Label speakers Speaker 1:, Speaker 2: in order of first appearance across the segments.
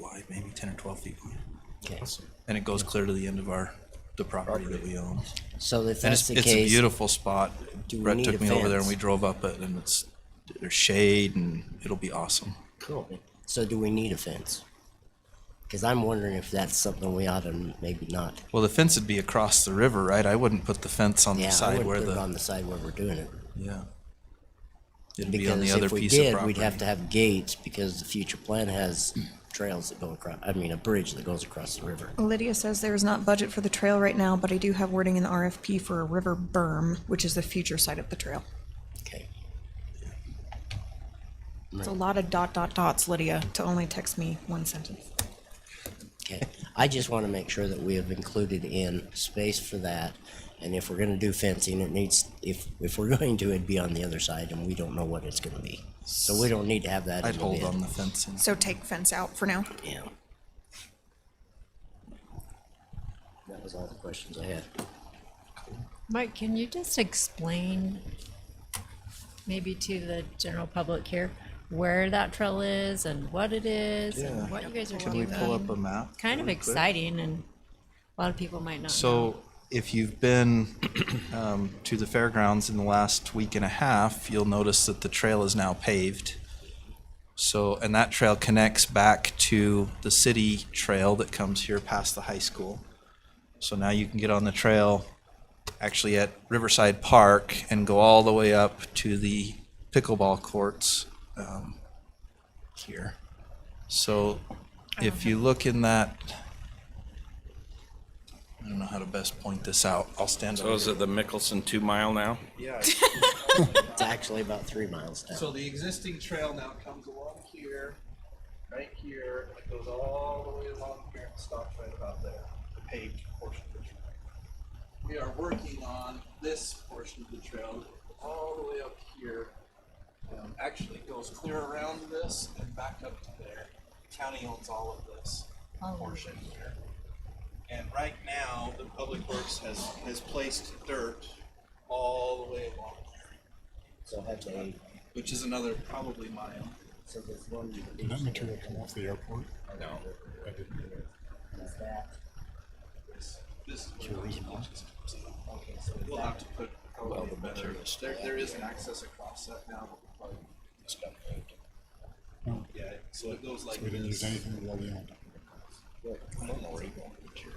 Speaker 1: like maybe ten or twelve feet long.
Speaker 2: Okay.
Speaker 1: And it goes clear to the end of our, the property that we own.
Speaker 2: So if
Speaker 1: And
Speaker 2: that's
Speaker 1: it's,
Speaker 2: the
Speaker 1: it's a
Speaker 2: case,
Speaker 1: beautiful spot.
Speaker 2: do we
Speaker 1: Brett
Speaker 2: need
Speaker 1: took
Speaker 2: a
Speaker 1: me over there and
Speaker 2: fence?
Speaker 1: we drove up it and it's, there's shade and it'll be awesome.
Speaker 2: cool. So do we need a fence? Because I'm wondering if that's something we ought to maybe not.
Speaker 1: Well, the fence would be across the river, right? I wouldn't put the fence on the
Speaker 2: Yeah, I
Speaker 1: side
Speaker 2: would
Speaker 1: where
Speaker 2: put it
Speaker 1: the,
Speaker 2: on the side where we're doing it.
Speaker 1: yeah. It'd be on the
Speaker 2: Because
Speaker 1: other
Speaker 2: if we
Speaker 1: piece of
Speaker 2: did, we'd
Speaker 1: property.
Speaker 2: have to have gates because the future plan has trails that go across, I mean, a bridge that goes across the river.
Speaker 3: Lydia says there is not budget for the trail right now, but I do have wording in the RFP for a river berm, which is the future side of the trail.
Speaker 2: Okay.
Speaker 3: It's a lot of dot dot dots, Lydia, to only text me one sentence.
Speaker 2: Okay, I just want to make sure that we have included in space for that. And if we're gonna do fencing, it needs, if, if we're going to, it'd be on the other side and we don't know what it's gonna be. So we don't need to have that
Speaker 1: I'd
Speaker 2: in the
Speaker 1: hold on
Speaker 2: bid.
Speaker 1: the fencing.
Speaker 3: So take fence out for now.
Speaker 2: Yeah. That was all the questions I had.
Speaker 4: Mike, can you just explain maybe to the general public here where that trail is and what it is and what you guys are
Speaker 1: Can we
Speaker 4: doing?
Speaker 1: pull up a map?
Speaker 4: Kind of
Speaker 1: really quick?
Speaker 4: exciting and a lot of people might not know.
Speaker 1: So if you've been um, to the fairgrounds in the last week and a half, you'll notice that the trail is now paved. So, and that trail connects back to the city trail that comes here past the high school. So now you can get on the trail actually at Riverside Park and go all the way up to the pickleball courts um, here. So if you look in that, I don't know how to best point this out. I'll stand
Speaker 5: So
Speaker 1: up.
Speaker 5: Oh, is it the Mickelson two mile now?
Speaker 2: It's actually about three miles
Speaker 6: So
Speaker 2: down.
Speaker 6: the existing trail now comes along here, right here, and it goes all the way along here and stops right about there, the paved portion of the trail. We are working on this portion of the trail, all the way up here. Um, actually goes clear around this and back up to there. County owns all of this portion here. And right now, the Public Works has, has placed dirt all the way along here
Speaker 2: So have they,
Speaker 6: which is another probably mile.
Speaker 2: so there's one,
Speaker 7: Did that material come off the airport?
Speaker 5: No.
Speaker 7: I didn't.
Speaker 2: is that,
Speaker 6: This this is
Speaker 2: Sure,
Speaker 6: where the
Speaker 2: reason why.
Speaker 6: just comes in.
Speaker 2: okay, so is
Speaker 6: We'll
Speaker 2: that,
Speaker 6: have to put
Speaker 5: Well,
Speaker 6: probably
Speaker 5: the
Speaker 6: better.
Speaker 5: materials.
Speaker 6: There, there is an access across that now. but we'll probably-
Speaker 7: No.
Speaker 6: Yeah, so it goes like
Speaker 7: We didn't use
Speaker 6: this.
Speaker 7: anything that we owned.
Speaker 6: I don't know where you're going with your-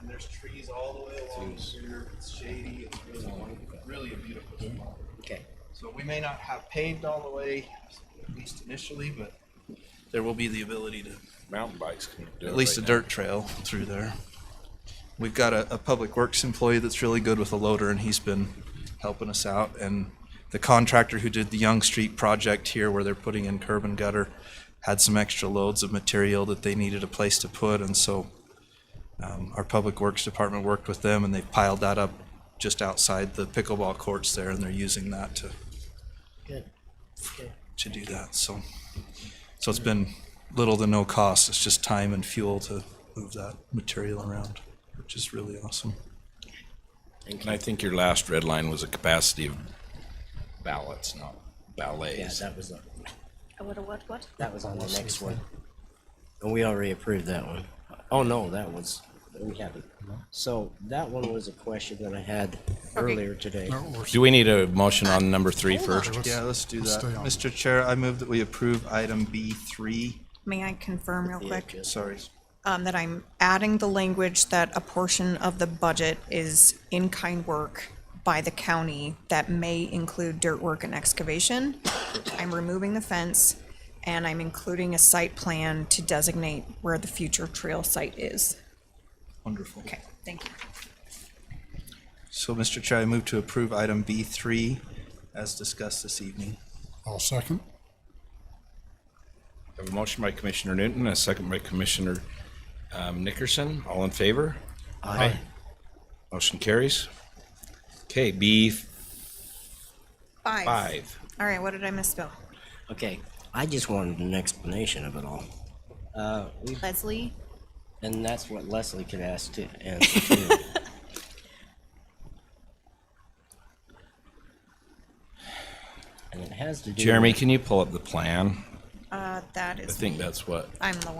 Speaker 6: And there's trees all the way along here. It's shady. It's really, really a beautiful spot.
Speaker 2: okay.
Speaker 6: So we may not have paved all the way, at least initially, but
Speaker 1: There will be the ability to
Speaker 5: Mountain bikes can do it.
Speaker 1: at least a
Speaker 5: right
Speaker 1: dirt trail through there. We've got a, a public works employee that's really good with a loader and he's been helping us out. And the contractor who did the Young Street project here where they're putting in curb and gutter had some extra loads of material that they needed a place to put. And so um, our public works department worked with them and they piled that up just outside the pickleball courts there and they're using that to
Speaker 2: Good, good.
Speaker 1: to do that. So, so it's been little to no cost. It's just time and fuel to move that material around, which is really awesome.
Speaker 2: Thank
Speaker 5: And I
Speaker 2: you.
Speaker 5: think your last red line was a capacity of ballots, not
Speaker 2: Yeah,
Speaker 5: ballets.
Speaker 2: that was, on-
Speaker 3: What, what, what?
Speaker 2: that was on the next one. And we already approved that one. Oh, no, that was, we haven't. So that one was a question that I had earlier today.
Speaker 5: Do we need a motion on number three first?
Speaker 1: Yeah, let's do
Speaker 7: Let's
Speaker 1: that.
Speaker 7: stay on.
Speaker 1: Mr. Chair, I move that we approve item B3.
Speaker 3: May I confirm real quick?
Speaker 1: Sorry.
Speaker 3: um, that I'm adding the language that a portion of the budget is in-kind work by the county that may include dirt work and excavation. I'm removing the fence and I'm including a site plan to designate where the future trail site is.
Speaker 1: Wonderful.
Speaker 3: Okay, thank you.
Speaker 1: So, Mr. Chair, I move to approve item B3 as discussed this evening.
Speaker 7: I'll second.
Speaker 5: Have a motion by Commissioner Newton, a second by Commissioner um, Nickerson. All in favor? Aye. Motion carries. Okay, B
Speaker 3: Five.
Speaker 5: five.
Speaker 3: All right, what did I misspell?
Speaker 2: Okay, I just wanted an explanation of it all.
Speaker 3: Leslie?
Speaker 2: And that's what Leslie could ask to answer too. And it has to do.
Speaker 5: Jeremy,
Speaker 2: with-
Speaker 5: can you pull up the plan?
Speaker 3: Uh, that
Speaker 5: I
Speaker 3: is, Uh,
Speaker 5: think that's what
Speaker 3: I'm the one.